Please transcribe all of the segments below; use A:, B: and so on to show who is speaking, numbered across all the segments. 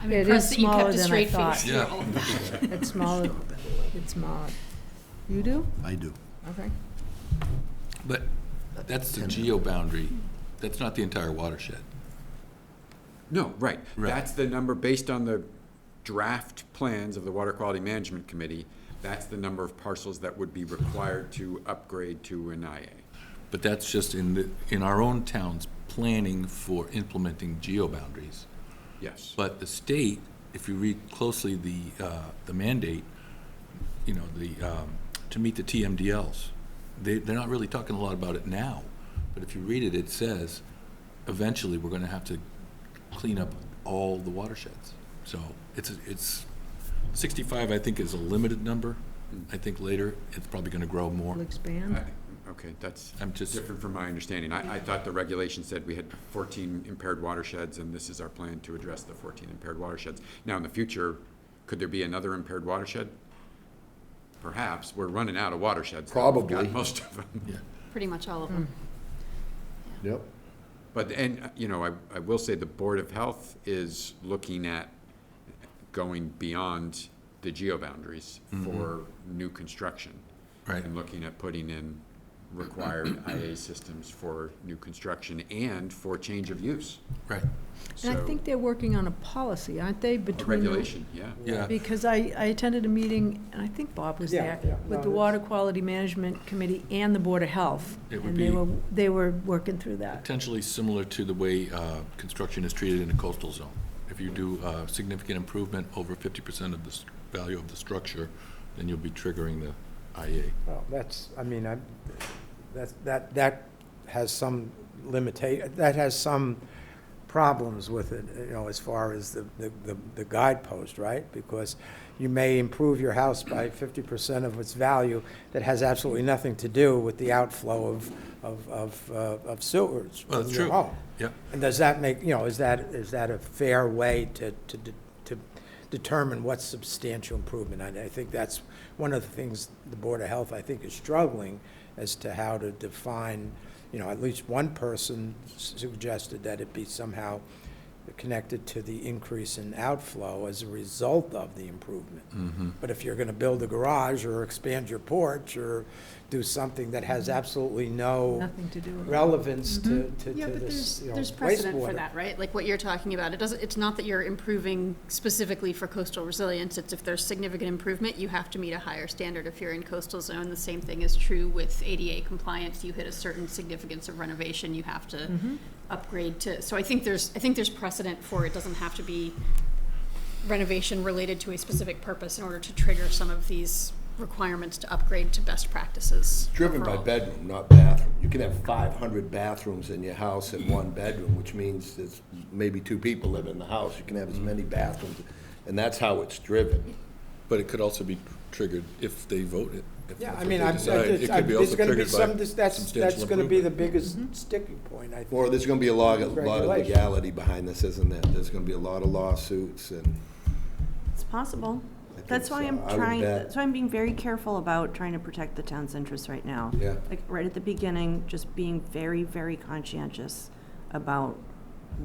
A: I'm
B: It is
A: impressed that you
B: smaller
A: kept a
B: than I
A: straight
B: thought.
A: face through
C: Yeah.
A: all of that.
B: It's smaller, it's smaller. You do?
D: I do.
B: Okay.
C: But that's the geo boundary. That's not the entire watershed.
E: No, right.
C: Right.
E: That's the number, based on the draft plans of the Water Quality Management Committee, that's the number of parcels that would be required to upgrade to an IA.
C: But that's just in the, in our own town's planning for implementing geo boundaries.
E: Yes.
C: But the state, if you read closely the, uh, the mandate, you know, the, um, to meet the TMDLs, they, they're not really talking a lot about it now, but if you read it, it says, eventually, we're gonna have to clean up all the watersheds. So it's, it's, sixty-five, I think, is a limited number. I think later, it's probably gonna grow
B: We'll
C: more.
B: expand.
E: I- Okay, that's
C: I'm just,
E: different from my understanding. I, I thought the regulation said we had fourteen impaired watersheds, and this is our plan to address the fourteen impaired watersheds. Now, in the future, could there be another impaired watershed? Perhaps. We're running out of watersheds. though. We've got
D: Probably.
E: Most of them.
A: Pretty much all of them.
D: Yep.
E: But, and, uh, you know, I, I will say the Board of Health is looking at going beyond the geo boundaries for new construction.
C: Right.
E: And looking at putting in required IA systems for new construction and for change of use.
C: right,
B: And I
E: So-
B: think they're working on a policy, aren't they,
E: A
B: between? the-
E: regulation, yeah.
C: yeah.
B: Because I, I attended a meeting, and I think Bob was
F: Yeah,
B: there,
F: yeah, no,
B: with the
F: it's-
B: Water Quality Management Committee and the Board of Health.
C: It would
B: And they
C: be-
B: were, they were working through that.
C: Potentially similar to the way uh, construction is treated in a coastal zone. If you do uh, significant improvement over 50% of the s- value of the structure, then you'll be triggering the IA.
F: Well, that's, I mean, I, that, that, that has some limita, that has some problems with it, you know, as far as the, the- the, the guidepost, right? Because you may improve your house by fifty percent of its value that has absolutely nothing to do with the outflow of, of, of, uh, of sewers
C: Well,
F: from
C: that's
F: your
C: true.
F: home.
C: Yep.
F: And does that make, you know, is that, is that a fair way to, to, de- to determine what's substantial improvement? And I think that's one of the things the Board of Health, I think, is struggling as to how to define, you know, at least one person s- suggested that it be somehow connected to the increase in outflow as a result of the improvement. But if you're gonna build a garage or expand your porch or do something that has absolutely no
B: Nothing to do with it.
F: relevance to, to,
A: Mm-hmm. Yeah,
F: to
A: but
F: this,
A: there's,
F: you know,
A: there's precedent for
F: wastewater.
A: that, right? Like what you're talking about, it doesn't, it's not that you're improving specifically for coastal resilience, it's if there's significant improvement, you have to meet a higher standard if you're in coastal zone. The same thing is true with ADA compliance, you hit a certain significance of renovation, you have to
F: Mm-hmm.
A: upgrade to, so I think there's, I think there's precedent for it doesn't have to be renovation related to a specific purpose in order to trigger some of these requirements to upgrade to best practices.
D: Driven by
A: overall.
D: bedroom, not bathroom. You could have 500 bathrooms in your house and one bedroom, which means there's maybe two people live in the house. You can have as many bathrooms, and that's how it's driven.
C: But it could also be triggered if they vote it. if
F: Yeah,
C: that's
F: I
C: what
F: mean,
C: they
F: I'm,
C: decide. It
F: it's,
C: could
F: I'm-
C: be
F: it's
C: also
F: gonna be
C: triggered by
F: some, dis- that's,
C: substantial
F: that's gonna be the
C: improvement.
F: biggest
A: Mm-hmm.
F: sticking point, I think.
D: Or there's going to be a lot, a lot of
F: Regulation.
D: legality behind this, isn't there? There's going to be a lot of lawsuits and.
G: It's possible.
D: think
G: That's why
D: so.
G: I'm
D: I would
G: trying,
D: bet.
G: that's why I'm being very careful about trying to protect the town's interests right now.
D: Yeah.
G: Like, right at the beginning, just being very, very conscientious about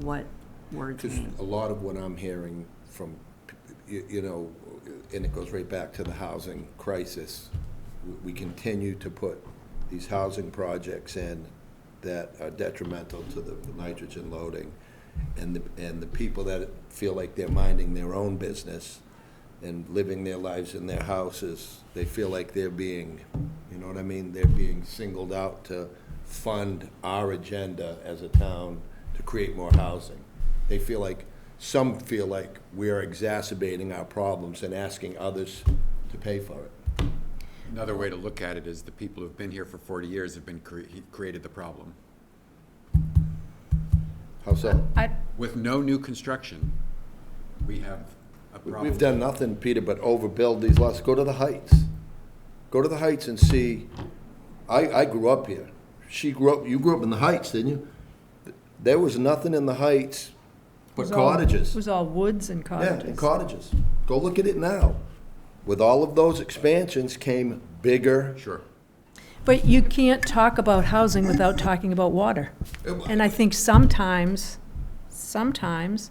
G: what words
D: Because
G: mean.
D: a lot of what I'm hearing from, p- you you know, and it goes right back to the housing crisis, we- we continue to put these housing projects in that are detrimental to the nitrogen loading. And the, and the people that feel like they're minding their own business and living their lives in their houses, they feel like they're being, you know what I mean? They're being singled out to fund our agenda as a town to create more housing. They feel like, some feel like we are exacerbating our problems and asking others to pay for it.
E: Another way to look at it is the people who've been here for forty years have been, cre- created the problem.
D: How so?
B: I,
E: With no new construction, we have a problem.
D: We've done nothing, Peter, but overbuild these lots. Go to the Heights. Go to the Heights and see, I, I grew up here. She grew up, you grew up in the Heights, didn't you? There was nothing in the Heights
B: it
D: but
B: was all-
D: cottages.
B: It was all woods and
D: Yeah,
B: cottages.
D: and cottages. Go look at it now. With all of those expansions came bigger.
E: Sure.
B: But you can't talk about housing without talking about water. And I think sometimes, sometimes,